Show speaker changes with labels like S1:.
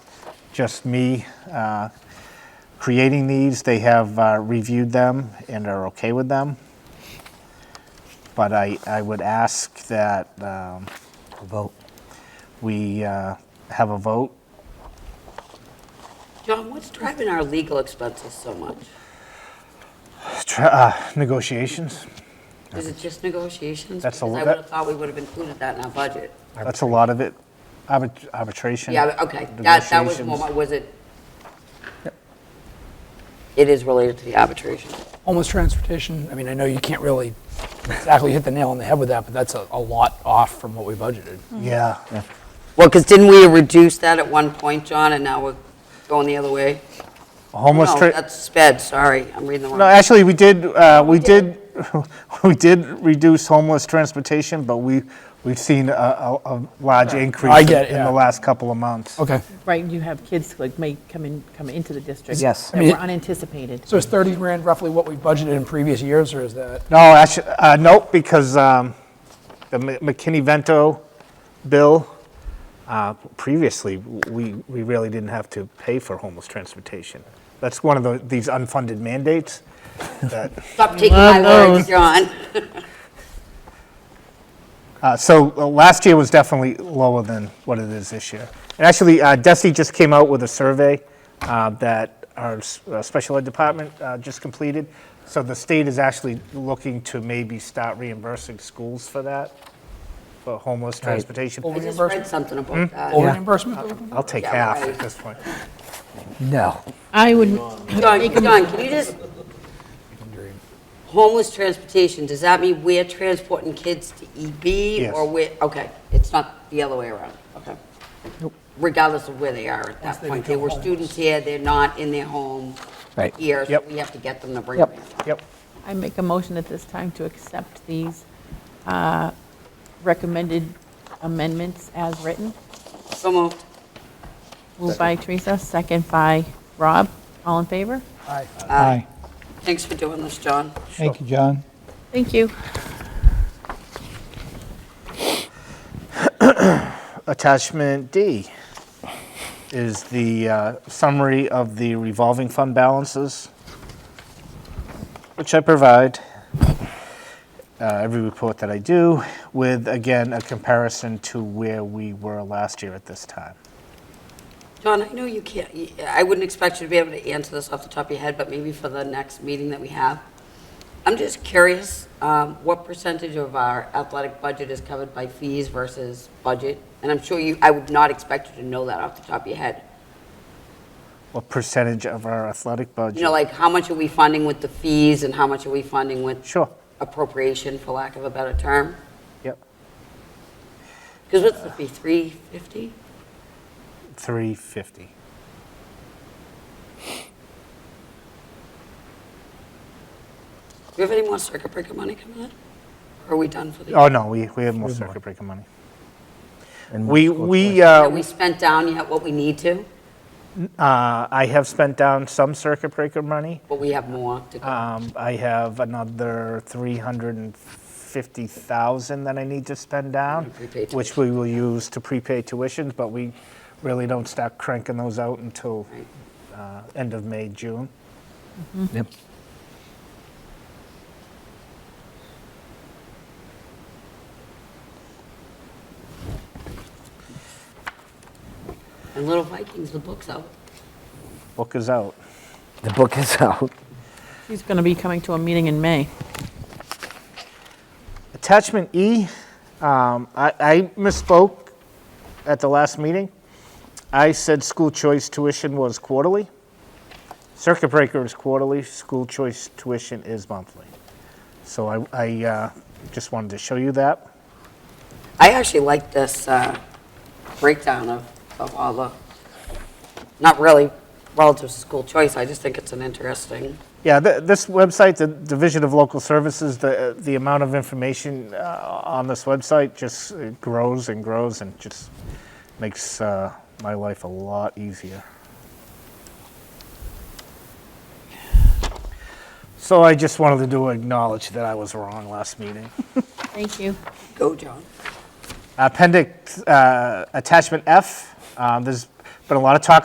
S1: just me uh, creating these. They have uh, reviewed them and are okay with them. But I, I would ask that um,
S2: Vote.
S1: we uh, have a vote.
S3: John, what's driving our legal expenses so much?
S1: Tr- uh, Negotiations,
S3: Is it just negotiations?
S1: That's a
S3: Because I
S1: lo-
S3: would
S1: that-
S3: have thought we would have included that in our budget.
S1: that's a lot of it. Arbit- Arbitration.
S3: Yeah, uh, okay, that, that was more,
S1: negotiations.
S3: my- was it? It is related to the arbitration.
S4: Homeless transportation, I mean, I know you can't really exactly hit the nail on the head with that, but that's a, a lot off from what we budgeted.
S1: Yeah,
S3: Well, because didn't we reduce that at one point, John, and now we're going the other way?
S1: homeless.
S3: No,
S1: tra-
S3: that's sped, sorry, I'm reading the wrong.
S1: No, actually, we did, uh, we did, we did reduce homeless transportation, but we, we've seen a, a, a large increase.
S4: I get it,
S1: In
S4: yeah.
S1: the last couple of months.
S4: Okay.
S5: Right, you have kids like may come in, come into the district.
S2: Yes.
S5: That were unanticipated.
S4: So is 30 grand roughly what we budgeted in previous years, or is that?
S1: No, actually, uh, nope, because, um, the M- McKinney-Vento bill, uh, previously, we, we really didn't have to pay for homeless transportation. That's one of the, these unfunded mandates.
S3: Stop taking my words, John.
S1: Uh, So uh, last year was definitely lower than what it is this year. And actually, uh, Desi just came out with a survey uh, that our s- uh, special ed department uh, just completed. So the state is actually looking to maybe start reimbursing schools for that, for homeless transportation.
S3: I just
S4: Reimbursement?
S3: read something about
S1: Hmm?
S3: that.
S4: Over reimbursement?
S1: I'll take
S3: Yeah,
S1: half
S3: right.
S1: at this point.
S2: No.
S5: I would,
S3: John, John, can you just, homeless transportation, does that mean we're transporting kids to EB?
S1: Yes.
S3: Or we're, okay, it's not the other way around, okay? Regardless of where they are at that point, they were students here, they're not in their home
S2: Right.
S3: here, so
S1: Yep.
S3: we have to get them to bring them in.
S1: Yep.
S5: I make a motion at this time to accept these uh, recommended amendments as written.
S3: So moved.
S5: Moved by Teresa, second by Rob. All in favor?
S6: Aye.
S3: Thanks for doing this, John.
S6: Thank you, John.
S5: Thank you.
S1: Attachment D is the uh, summary of the revolving fund balances, which I provide uh, every report that I do, with, again, a comparison to where we were last year at this time.
S3: John, I know you can't, y- I wouldn't expect you to be able to answer this off the top of your head, but maybe for the next meeting that we have. I'm just curious, um, what percentage of our athletic budget is covered by fees versus budget? And I'm sure you, I would not expect you to know that off the top of your head.
S1: What percentage of our athletic
S3: You know,
S1: budget?
S3: like, how much are we funding with the fees and how much are we funding with
S1: Sure,
S3: appropriation, for lack of a better term?
S1: yep,
S3: Because what's the fee, 350?
S1: 350.
S3: Do we have any more circuit breaker money coming in? Or are we done for the?
S1: Oh, no, we, we have more circuit breaker money.
S2: And
S1: We,
S2: school choice.
S1: we,
S3: Have
S1: uh,
S3: we spent down yet what we need to?
S1: uh, I have spent down some circuit breaker money.
S3: But we have more to go.
S1: Um, I have another 350,000 that I need to spend down,
S3: Prepay tuition.
S1: which we will use to prepay tuitions, but we really don't start cranking those out until
S3: Right.
S1: uh, end of May, June.
S2: Yep.
S3: And Little Vikings, the book's out.
S1: Book is out.
S2: The book is out.
S5: He's going to be coming to a meeting in May.
S1: Attachment E, um, I I misspoke at the last meeting. I said school choice tuition was quarterly. Circuit breaker is quarterly, school choice tuition is monthly. So I- I uh, just wanted to show you that.
S3: I actually like this uh, breakdown of, of all the, not really relative to school choice, I just think it's an interesting,
S1: Yeah, th- this website, the Division of Local Services, the, the amount of information uh, on this website just uh, grows and grows and just makes uh, my life a lot easier. So I just wanted to do acknowledge that I was wrong last meeting.
S5: Thank you.
S3: go, John.
S1: Appendix, uh, attachment F, um, there's been a lot of talk